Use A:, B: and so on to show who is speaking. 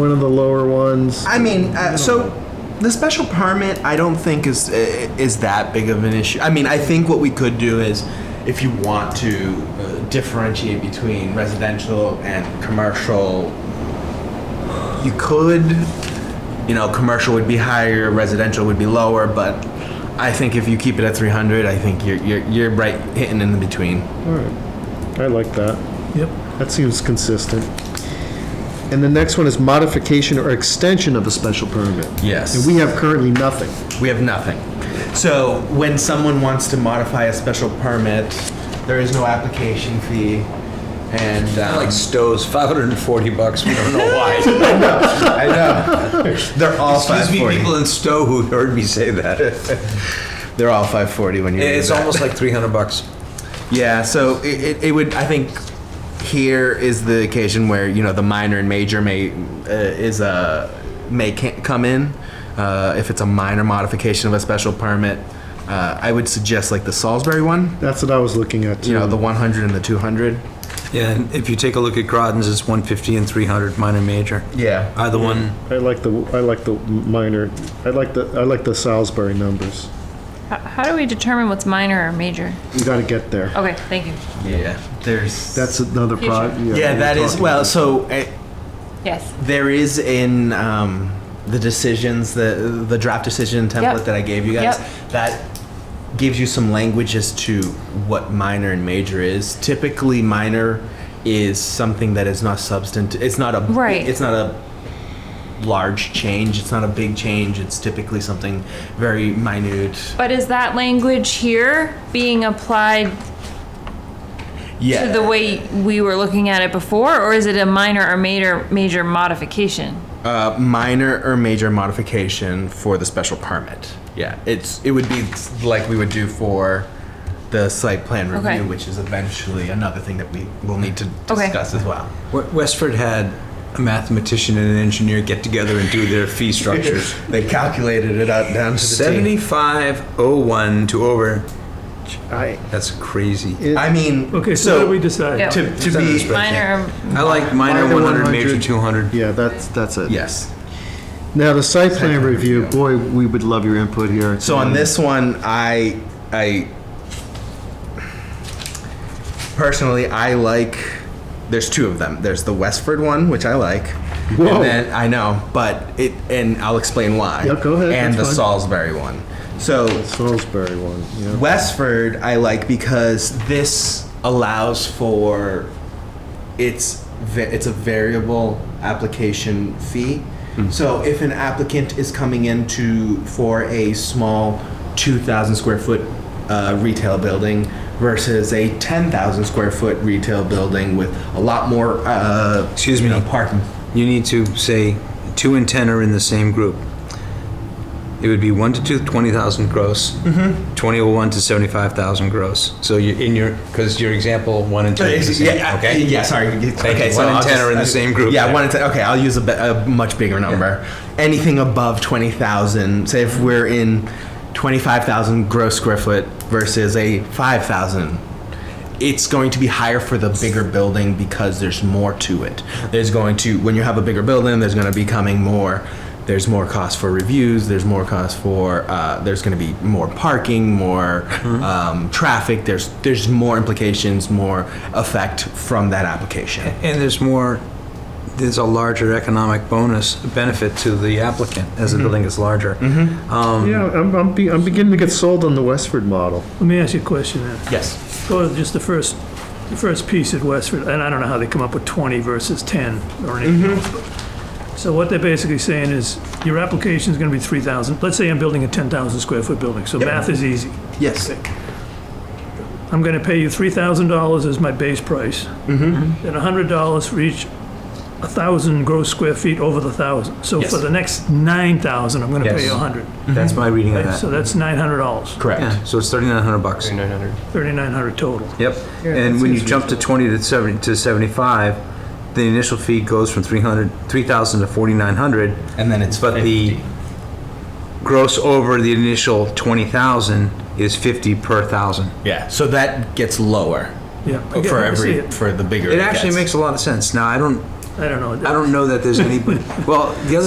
A: One of the lower ones.
B: I mean, uh, so the special permit, I don't think is uh, is that big of an issue. I mean, I think what we could do is, if you want to uh, differentiate between residential and commercial, you could. You know, commercial would be higher, residential would be lower, but I think if you keep it at 300, I think you're you're, you're right hitting in the between.
A: All right. I like that.
C: Yep.
A: That seems consistent. And the next one is modification or extension of a special permit.
B: Yes.
A: And we have currently nothing.
B: We have nothing. So when someone wants to modify a special permit, there is no application fee, and um,
D: Like Stowe's, 540 bucks, we don't know why.
B: I know they're all five
D: Excuse me,
B: forty.
D: people in Stowe who heard me say that.
B: They're all five forty when you. do
D: It's
B: that.
D: almost like 300 bucks.
B: yeah. So it, it, it would I think here is the occasion where you know the minor and major may uh, is a may can come in uh, if it's a minor modification of a special permit. Uh, I would suggest like the Salisbury one,
A: That's what I was looking at too.
B: you know,
D: Hmm.
B: the 100 and the 200.
D: Yeah, and if you take a look at Groton's, it's 150 and 300, minor, major.
B: Yeah.
D: Either one,
A: I like the, I like the minor, I like the, I like the Salisbury numbers.
E: How, how do we determine what's minor or major?
A: We gotta get there.
E: Okay, thank you.
B: Yeah. There's
A: That's another pro.
B: Yeah,
A: we're
B: that is
A: talking
B: well.
A: about-
B: So uh,
E: Yes.
B: there is in um, the decisions, the the draft decision template
E: Yep.
B: that I gave you guys.
E: Yep.
B: That gives you some language as to what minor and major is. Typically, minor is something that is not substantive. It's not a.
E: Right.
B: It's not a large change. It's not a big change. It's typically something very minute.
E: But is that language here being applied
B: Yeah.
E: to the way we were looking at it before, or is it a minor or major major modification?
B: Uh, minor or major modification for the special permit. Yeah, it's, it would be like we would do for the site plan
E: Okay.
B: review, which is eventually another thing that we will need to
E: Okay.
B: discuss as well.
D: We- Westford had a mathematician and an engineer get together and do their fee structures.
B: They calculated it out down to the T.
D: 7501 to over,
A: I,
D: that's crazy.
B: I mean,
C: Okay, so what
B: so
C: do we decide?
E: Yeah.
B: Uh, to, to
D: Send this
B: be,
D: back.
E: Minor or
D: I like minor
A: Minor
D: 100,
A: 100.
D: major 200.
A: yeah, that's, that's it.
B: yes.
A: Now, the site plan review, boy, we would love your input here.
B: So on this one, I, I personally, I like. There's two of them. There's the Westford one, which I like,
A: Whoa.
B: and then I know, but it, and I'll explain why.
A: Yeah, go ahead,
B: And
A: that's
B: the
A: fine.
B: Salisbury one. So
A: Salisbury one, yeah.
B: Westford, I like because this allows for it's va- it's a variable application fee.
D: Hmm.
B: So if an applicant is coming into for a small 2,000 square foot uh, retail building versus a 10,000 square foot retail building with a lot more uh,
D: Excuse
B: you
D: me.
B: know, parking.
D: You need to say 2 and 10 are in the same group. It would be 1 to 2, 20,000 gross. Mm-hmm. 21 to 75,000 gross. So you in your, because your example, 1 and 2 is the same,
B: yeah,
D: okay?
B: Yeah, sorry.
D: Thank you. One
B: I'll
D: and
B: uh,
D: 10 are in the same group
B: Yeah,
D: there.
B: one and ten. Okay, I'll use a, be- a much bigger number. Anything above 20,000, say if we're in 25,000 gross square foot versus a 5,000, it's going to be higher for the bigger building because there's more to it. There's going to, when you have a bigger building, there's going to be coming more. There's more cost for reviews. There's more cost for. Uh, there's going to be more parking, more um, traffic. There's there's more implications, more effect from that application.
D: And there's more, there's a larger economic bonus benefit to the applicant as the building gets larger. Um,
A: Yeah, I'm, I'm, be- I'm beginning to get sold on the Westford model.
C: Let me ask you a question then.
B: Yes.
C: Go to just the first, the first piece at Westford, and I don't know how they come up with 20 versus 10 or anything else. but- So what they're basically saying is, your application is gonna be 3,000, let's say I'm building a 10,000 square foot building, so math is easy.
B: Yes.
C: I'm gonna pay you $3,000 as my base price.
B: Mm-hmm.
C: And $100 for each 1,000 gross square feet over the 1,000. So for the next 9,000, I'm gonna pay you
D: Yes.
C: 100.
D: That's my reading of
C: right? So
D: that.
C: that's $900,
B: Correct.
D: Yeah, so it's 3,900 bucks.
C: 3,900 total.
D: Yep. And when you jump to 20 to 70, to 75, the initial fee goes from 300, 3,000 to 4,900,
B: And then it's
D: but the gross over the initial 20,000 is 50 per thousand.
B: yeah. So that gets lower
C: Yeah. I get-
B: Oh, for
C: I see
B: every
C: it.
B: for the bigger.
D: It actually
B: gets.
D: makes a lot of sense. Now, I don't,
C: I don't know.
D: I don't know that there's any, well, the other